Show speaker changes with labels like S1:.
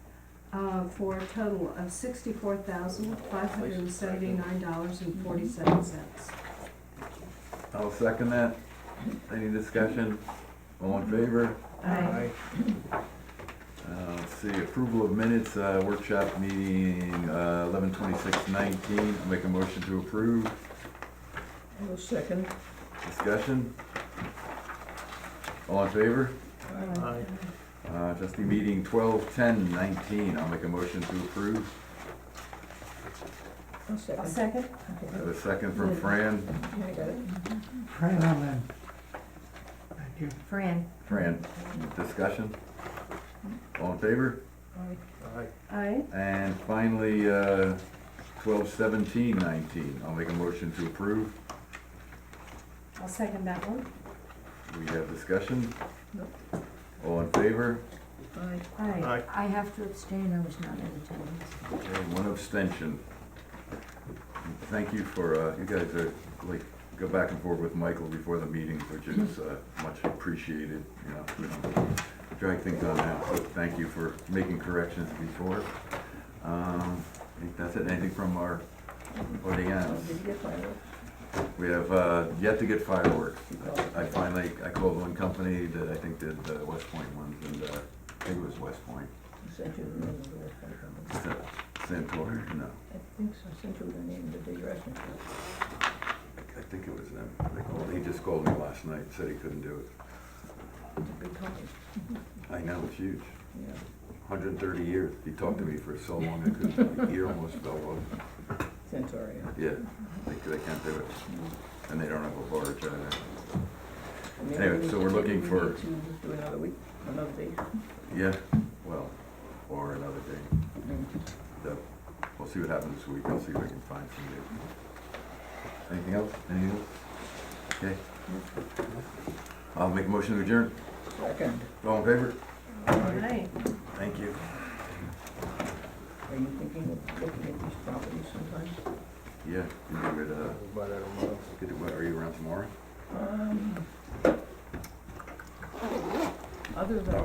S1: uh, for a total of sixty-four thousand, five hundred and seventy-nine dollars and forty-seven cents.
S2: I'll second that. Any discussion? All in favor?
S1: Aye.
S2: Uh, let's see, approval of minutes, uh, workshop meeting, uh, eleven twenty-six nineteen. I'll make a motion to approve.
S3: I'll second.
S2: Discussion? All in favor?
S3: Aye.
S2: Uh, trustee meeting twelve ten nineteen. I'll make a motion to approve.
S3: I'll
S1: A
S3: second.
S1: second?
S2: I have a second from Fran.
S3: Yeah, I got it.
S4: Fran, I'm in. Thank you.
S5: Fran,
S2: Fran, discussion? All in favor?
S3: Aye.
S1: Aye.
S2: And finally, uh, twelve seventeen nineteen, I'll make a motion to approve.
S1: I'll second that one.
S2: We have discussion?
S3: No.
S2: All in favor?
S3: Aye.
S1: Aye.
S5: I have to abstain, I was not in attendance.
S2: Okay, one abstention. Thank you for, uh, you guys are, like, go back and forth with Michael before the meeting, which is, uh, much appreciated, you know. we don't Drag things on now, so thank you for making corrections before. Um, I think that's it, anything from our
S1: Oh,
S2: audience?
S3: Did you get my note?
S2: We have uh, yet to get fireworks. I finally, I called one company that I think did the West Point ones, and uh, I think it was West Point.
S3: I sent you the name of the restaurant.
S2: Sa- Santori, no,
S3: I think so, I sent you the name of the restaurant.
S2: I think it was them. They called, he just called me last night, said he couldn't do it.
S3: It's a big company,
S2: I know, it's huge,
S3: yeah.
S2: 130 years. He talked to me for so long, I couldn't, my ear almost fell off.
S3: Centauri.
S2: Yeah, they they can't do it, and they don't have a barge either.
S3: Maybe
S2: Anyway,
S3: we-
S2: so we're looking
S3: we
S2: for-
S3: need to Do another week, another day.
S2: Yeah, well, or another day.
S3: Mm.
S2: So, we'll see what happens this week, I'll see if I can find some news. Anything else, anything else? Okay. I'll make a motion to adjourn,
S3: Second,
S2: all in favor?
S1: Aye.
S2: Thank you.
S3: are you thinking of looking at these properties sometime?
S2: Yeah, can you get, uh, get the, what, are you around tomorrow?
S3: Um, Other than